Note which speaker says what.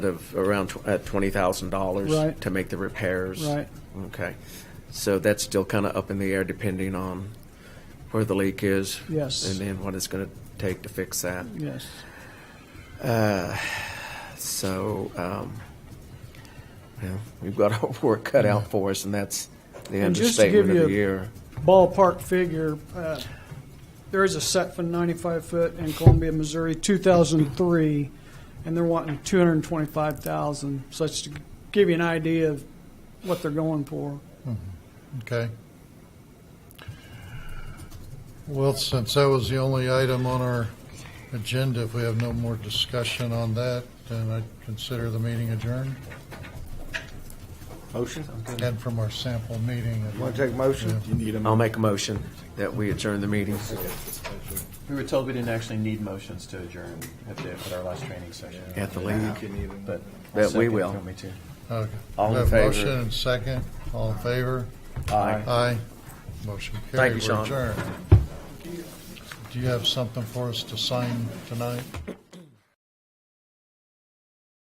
Speaker 1: of around tw- at twenty thousand dollars
Speaker 2: Right.
Speaker 1: to make the repairs.
Speaker 2: Right.
Speaker 1: Okay, so that's still kind of up in the air depending on where the leak is.
Speaker 2: Yes.
Speaker 1: And then what it's going to take to fix that.
Speaker 2: Yes.
Speaker 1: So, um, well, we've got our work cut out for us, and that's the
Speaker 2: And just to give
Speaker 1: understatement of the
Speaker 2: you a-
Speaker 1: year.
Speaker 2: Ballpark figure, uh, there is a set for 95 foot in Columbia, Missouri, 2003, and they're wanting 225,000. So that's to give you an idea of what they're going for.
Speaker 3: Okay. Well, since that was the only item on our agenda, if we have no more discussion on that, then I consider the meeting adjourned.
Speaker 4: Motion?
Speaker 3: And from our sample meeting.
Speaker 4: Want to take motion? Um, You need
Speaker 1: I'll make a motion that we adjourn the meeting.
Speaker 5: We were told we didn't actually need motions to adjourn at the, at our last training session.
Speaker 1: At the league.
Speaker 5: But.
Speaker 1: That we will.
Speaker 5: Second, if you want me to.
Speaker 3: Okay.
Speaker 1: All in
Speaker 3: We have
Speaker 1: favor.
Speaker 3: Motion and second, all in favor?
Speaker 1: Aye.
Speaker 3: Aye. Motion
Speaker 1: Thank you,
Speaker 3: carried, we're
Speaker 1: Sean.
Speaker 3: adjourned. Do you have something for us to sign tonight?